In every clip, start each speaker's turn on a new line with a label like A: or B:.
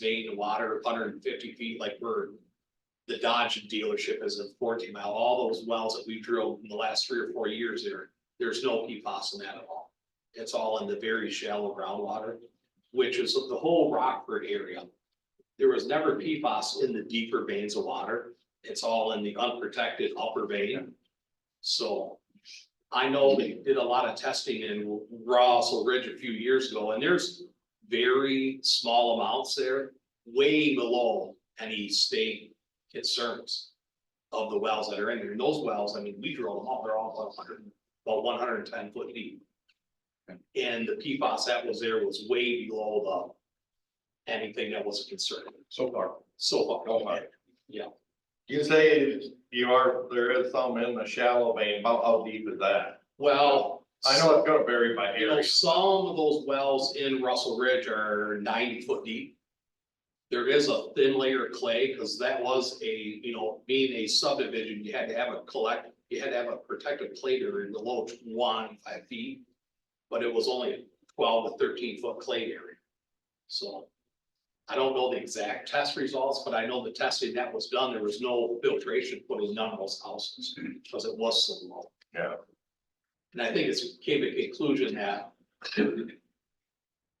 A: main to water, hundred and fifty feet, like we're. The Dodge dealership is a fourteen mile, all those wells that we drilled in the last three or four years there, there's no PFAS in that at all. It's all in the very shallow groundwater, which is the whole Rockford area. There was never PFAS in the deeper veins of water, it's all in the unprotected upper vein. So I know they did a lot of testing in Russell Ridge a few years ago, and there's very small amounts there, way below any state concerns of the wells that are in there. And those wells, I mean, we drilled them all, they're all about hundred, about one hundred and ten foot deep. And the PFAS that was there was way below the anything that was a concern
B: so far.
A: so
B: Oh,
A: far.
B: my. You say you are, there is some in the shallow vein, how, how deep is that?
A: Well.
B: I know it's gonna vary by
A: You know,
B: area,
A: some of those wells in Russell Ridge are ninety foot deep. There is a thin layer of clay, because that was a, you know, being a subdivision, you had to have a collect, you had to have a protective clay area below one, five feet. But it was only a twelve to thirteen foot clay area. So. I don't know the exact test results, but I know the testing that was done, there was no filtration put in none of those houses, because it was so low.
B: yeah,
A: And I think it's came to conclusion that.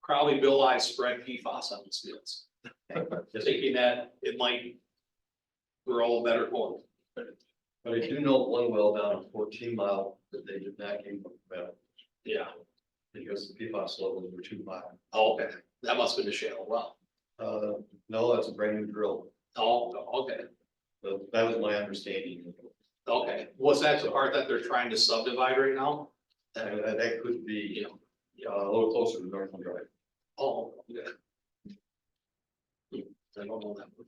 A: Probably Bill I spread PFAS on his fields. Thinking that it might. grow better corn.
C: But I do know one well down at fourteen mile that they did not give them well,
A: Yeah.
C: because the PFAS levels were too high.
A: Oh, Okay, that must have been a shale well.
C: Uh, no, that's a brand new drill,
A: Oh, okay,
C: but that was my understanding.
A: okay. Was that the part that they're trying to subdivide right now?
C: That, that- that could
A: You
C: be,
A: know,
C: uh, a little closer to Northland Drive.
A: oh, yeah. I don't know that one.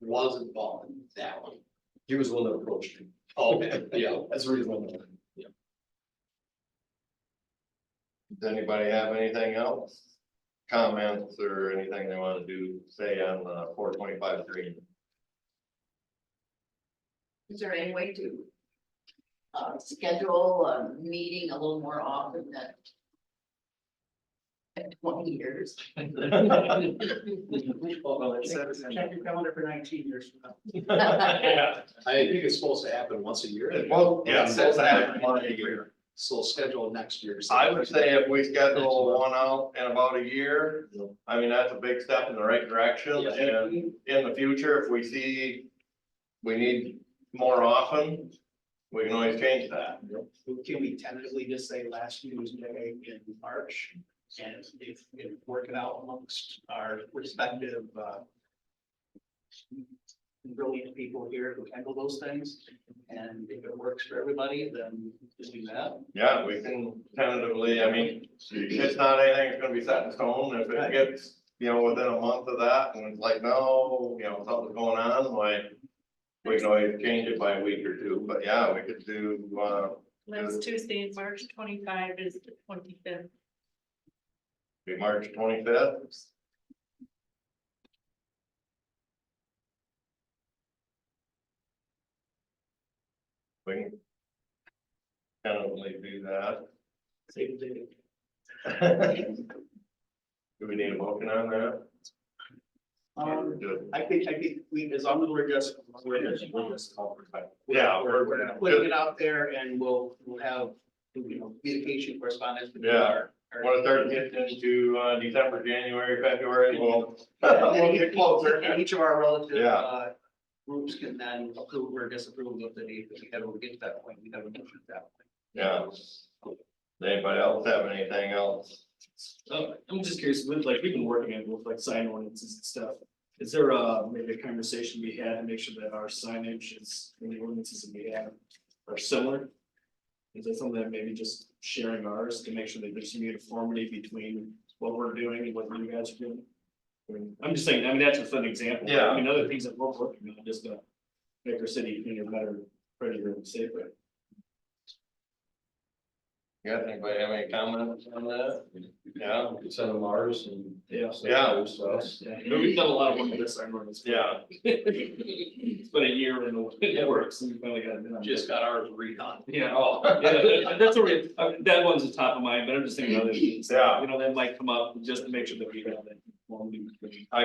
A: Was involved in that one.
C: He was the one that approached me.
A: Okay, yeah.
C: That's the reason. why I'm-
B: does anybody have anything else? Comments or anything they wanna do, say on the four twenty-five three?
D: Is there any way to uh, schedule a meeting a little more often than than twenty years?
E: Check your calendar for nineteen years from now.
A: I think it's supposed to happen once a year,
B: Well, yeah, since I have one a year.
A: so schedule next year.
B: I would say if we schedule one out in about a year, I mean, that's a big step in the right direction, and in the future, if we see we need more often, we can always change that.
E: Can we tentatively just say last Tuesday in March? And if, if work it out amongst our respective, uh, brilliant people here who handle those things, and if it works for everybody, then just do that.
B: Yeah, we can tentatively, I mean, it's not anything that's gonna be set in stone, if it
E: Right.
B: gets, you know, within a month of that, and it's like, no, you know, something's going on, like. We can always change it by a week or two, but yeah, we could do, uh,
F: Last Tuesday, in March twenty-five is the twenty-fifth.
B: be March twenty-fifth. We can. Tentatively do that.
E: Same thing.
B: Do we need a motion on that?
E: Um,
B: Do it.
E: I think, I think we, as long as we're just, we're just,
B: Yeah, we're,
E: we're
B: we're,
E: putting
B: just-
E: it out there and we'll, we'll have, you know, communication correspondence. between
B: Yeah.
E: our- our-
B: when it starts getting into, uh, December, January, February, we'll, we'll get
E: And
B: closer.
E: each of our relative,
B: Yeah.
E: uh, groups can then approve or disapprove of the date, but we gotta get to that point, we gotta get to that.
B: Yeah. Does Anybody else have anything else?
G: Uh, I'm just curious, with like, we've been working on with like sign ordinances and stuff. Is there uh maybe a conversation we had to make sure that our signage is, and the ordinances that we have are similar? Is that something that maybe just sharing ours to make sure that there's some uniformity between what we're doing and what you guys are doing? I mean, I'm just saying, I mean, that's just an example. I mean, other things that we're working on, just to make our city cleaner, better, prettier and safer.
B: You got anybody have any comments on that? Yeah,
C: We could send them ours and.
G: Yeah.
B: Yeah.
C: So,
G: Yeah, I mean, we've done a lot of work with this, sign ordinance.
B: yeah,
G: It's been a year and it works and we finally got it done.
A: Just got ours redone.
G: Yeah, oh, yeah, that- that's a real, I mean, that one's the top of mind, but I'm just thinking other things.
B: Yeah.
G: You know, that might come up just to make sure that we have that.